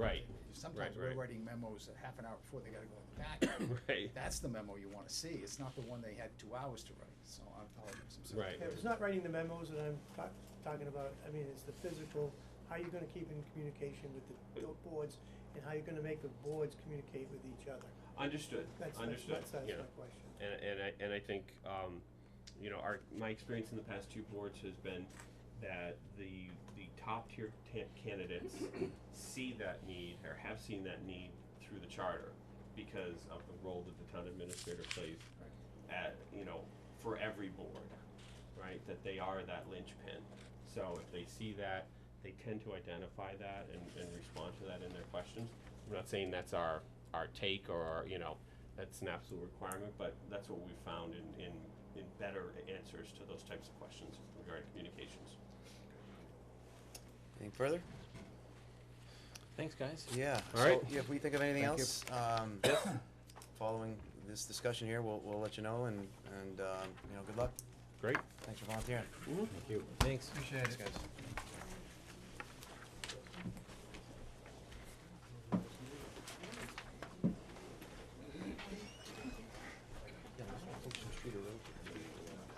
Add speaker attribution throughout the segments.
Speaker 1: Right,
Speaker 2: Sometimes
Speaker 1: right.
Speaker 2: we're writing memos a half an hour before they gotta go in the packet.
Speaker 1: right,
Speaker 2: That's the memo you wanna see, it's not the one they had two hours to write, so I apologize, I'm sorry.
Speaker 1: Right.
Speaker 3: Yeah, It's not writing the memos that I'm ta- talking about, I mean, it's the physical, how you're gonna keep in communication with the the boards, and how you're gonna make the boards communicate with each other.
Speaker 1: understood,
Speaker 3: That's, that's,
Speaker 1: understood,
Speaker 3: that's that's
Speaker 1: you know.
Speaker 3: my question.
Speaker 1: And, and I, and I think, um, you know, our, my experience in the past two boards has been that the, the top tier ta- candidates see that need or have seen that need through the charter because of the role that the town administrator plays at, you know, for every board, right? That they are that linchpin. So if they see that, they tend to identify that and, and respond to that in their questions. I'm not saying that's our, our take or, our, you know, that's an absolute requirement, but that's what we found in, in, in better answers to those types of questions regarding communications.
Speaker 4: Anything further?
Speaker 5: Thanks, guys.
Speaker 4: Yeah.
Speaker 1: All right.
Speaker 4: So, yeah, if we think of anything
Speaker 5: Thank you.
Speaker 4: else, um, following this discussion here, we'll, we'll let you know and, and, um, you know, good luck.
Speaker 1: Great.
Speaker 4: Thanks for volunteering.
Speaker 5: Thank you. Thanks.
Speaker 2: Appreciate
Speaker 4: Thanks, guys.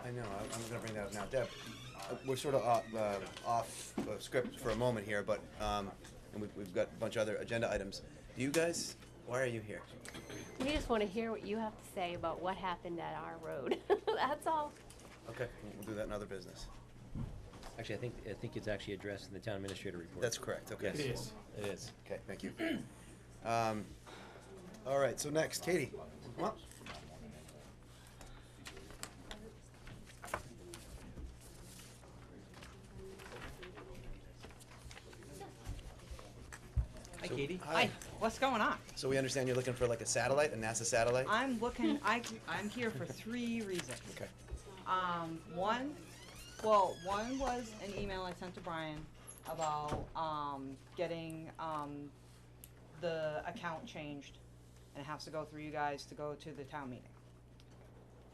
Speaker 4: I know, I- I'm gonna bring that up now. Deb, uh, we're sort of off, uh, off uh, script for a moment here, but, um, and we've, we've got a bunch of other agenda items. Do you guys, why are you here?
Speaker 6: We just want to hear what you have to say about what happened at our road. That's all.
Speaker 4: Okay, we'll- we'll do that in other business.
Speaker 5: Actually, I think, I think it's actually addressed in the town administrator report.
Speaker 4: That's correct, okay.
Speaker 5: Yes. It is. It is.
Speaker 4: Okay, thank you. Um, all right, so next, Katie, come up.
Speaker 7: Hi,
Speaker 4: So-
Speaker 7: Katie.
Speaker 4: Hi.
Speaker 7: Hi. What's going on?
Speaker 4: So we understand you're looking for like a satellite, a NASA satellite?
Speaker 7: I'm looking. I I'm here for three reasons.
Speaker 4: Okay,
Speaker 7: Um, one, well, one was an email I sent to Brian about um getting um the account changed, and it has to go through you guys to go to the town meeting.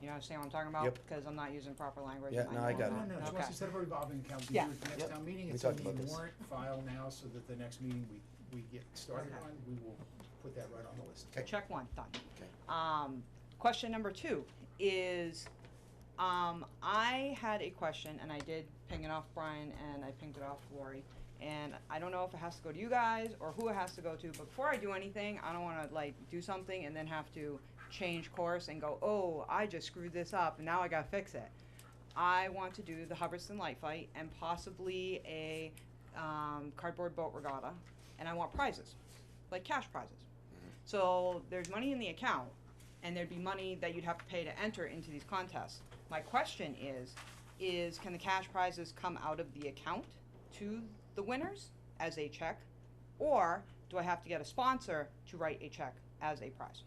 Speaker 7: You understand what I'm talking about?
Speaker 4: Yep.
Speaker 7: Because I'm not using proper language.
Speaker 4: Yeah,
Speaker 7: in my
Speaker 4: no, I
Speaker 7: email.
Speaker 4: got
Speaker 2: No,
Speaker 4: it.
Speaker 2: no,
Speaker 7: Okay.
Speaker 2: just instead of a revolving account, we do
Speaker 7: Yeah.
Speaker 2: it at the next
Speaker 4: Yep.
Speaker 2: town
Speaker 4: We
Speaker 2: meeting, it's in
Speaker 4: talked
Speaker 2: the
Speaker 4: about this.
Speaker 2: warrant file now, so that the next meeting we, we get started
Speaker 7: Okay.
Speaker 2: on, we will put that right on the list.
Speaker 4: Okay.
Speaker 7: Check one, done.
Speaker 4: Okay.
Speaker 7: Um, question number two is, um, I had a question and I did ping it off Brian and I pinged it off Lori. And I don't know if it has to go to you guys or who it has to go to, but before I do anything, I don't wanna like do something and then have to change course and go, oh, I just screwed this up and now I gotta fix it. I want to do the Hubbardston Light Fight and possibly a, um, cardboard boat regatta. And I want prizes, like cash prizes. So there's money in the account, and there'd be money that you'd have to pay to enter into these contests. My question is, is can the cash prizes come out of the account to the winners as a check, or do I have to get a sponsor to write a check as a prize?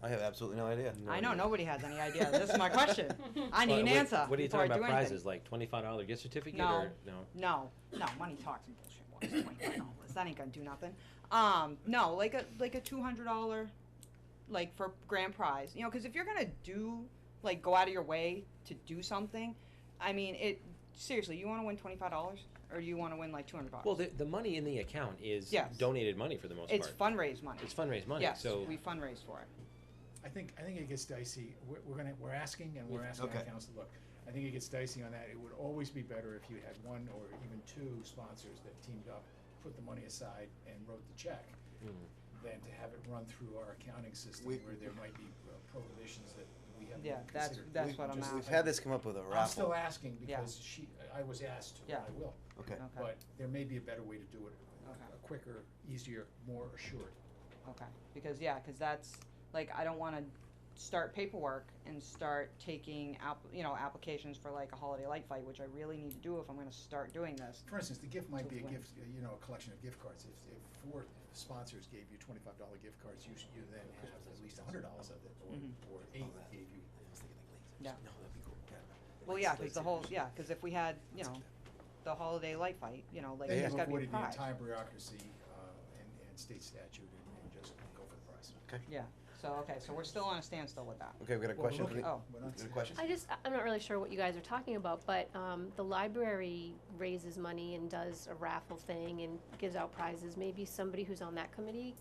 Speaker 4: I have absolutely no idea.
Speaker 7: I know nobody has any idea. This is my question. I need
Speaker 5: Well,
Speaker 7: an
Speaker 5: what-
Speaker 7: answer.
Speaker 5: What are you
Speaker 7: before I
Speaker 5: talking about
Speaker 7: do anything.
Speaker 5: prizes, like twenty-five dollar gift certificate
Speaker 7: No.
Speaker 5: or, no?
Speaker 7: No, no, money talks and bullshit. What's twenty-five dollars? That ain't gonna do nothing. Um, no, like a like a two hundred dollar, like for grand prize. You know, because if you're gonna do like go out of your way to do something, I mean, it seriously, you want to win twenty-five dollars or do you want to win like two hundred dollars?
Speaker 5: Well, the, the money in the account is
Speaker 7: Yes.
Speaker 5: donated money for the most
Speaker 7: it's
Speaker 5: part.
Speaker 7: fundraise money.
Speaker 5: It's fundraise money,
Speaker 7: yes,
Speaker 5: so,
Speaker 7: we fundraise for it.
Speaker 2: I think, I think it gets dicey, we're, we're gonna, we're asking and we're asking
Speaker 4: Okay.
Speaker 2: our council, look, I think it gets dicey on that, it would always be better if you had one or even two sponsors that teamed up, put the money aside and wrote the check, than to have it run through our accounting system
Speaker 4: Hmm. We-
Speaker 2: where there might be uh, prohibitions that we haven't
Speaker 7: Yeah,
Speaker 2: even
Speaker 7: that's-
Speaker 2: considered.
Speaker 7: that's
Speaker 2: We
Speaker 7: what I'm
Speaker 2: just-
Speaker 7: asking.
Speaker 4: We've had this come up with a
Speaker 2: I'm still
Speaker 4: raffle.
Speaker 2: asking
Speaker 7: Yeah.
Speaker 2: because she, I was asked to, and
Speaker 7: Yeah.
Speaker 2: I will,
Speaker 4: Okay,
Speaker 7: Okay.
Speaker 2: but there may be a better way to do it,
Speaker 7: Okay.
Speaker 2: a quicker, easier, more assured.
Speaker 7: Okay, because, yeah, because that's, like, I don't wanna start paperwork and start taking app, you know, applications for like a holiday light fight, which I really need to do if I'm gonna start doing this.
Speaker 2: For instance, the gift might
Speaker 7: To
Speaker 2: be a
Speaker 7: win.
Speaker 2: gift, uh, you know, a collection of gift cards. If, if four sponsors gave you twenty-five dollar gift cards, you, should- you then have at least a hundred dollars of it, or,
Speaker 7: Mhm.
Speaker 2: or eight gave you.
Speaker 7: Yeah. Well, yeah, cause the whole, yeah, cause if we had, you know, the holiday light fight, you know, like,
Speaker 2: Then
Speaker 7: there's
Speaker 2: you've
Speaker 7: gotta be a
Speaker 2: avoided the
Speaker 7: prize.
Speaker 2: entire bureaucracy, uh, and, and state statute and, and just go for the prize.
Speaker 4: okay.
Speaker 7: Yeah, So, okay, so we're still on a standstill with that.
Speaker 4: Okay, we got a
Speaker 2: Well,
Speaker 4: question.
Speaker 2: look-
Speaker 4: from the-
Speaker 7: Oh.
Speaker 2: We're
Speaker 4: we
Speaker 2: not
Speaker 4: got a
Speaker 2: saying-
Speaker 4: question.
Speaker 6: I just, I- I'm not really sure what you guys are talking about, but, um, the library raises money and does a raffle thing and gives out prizes. Maybe somebody who's on that committee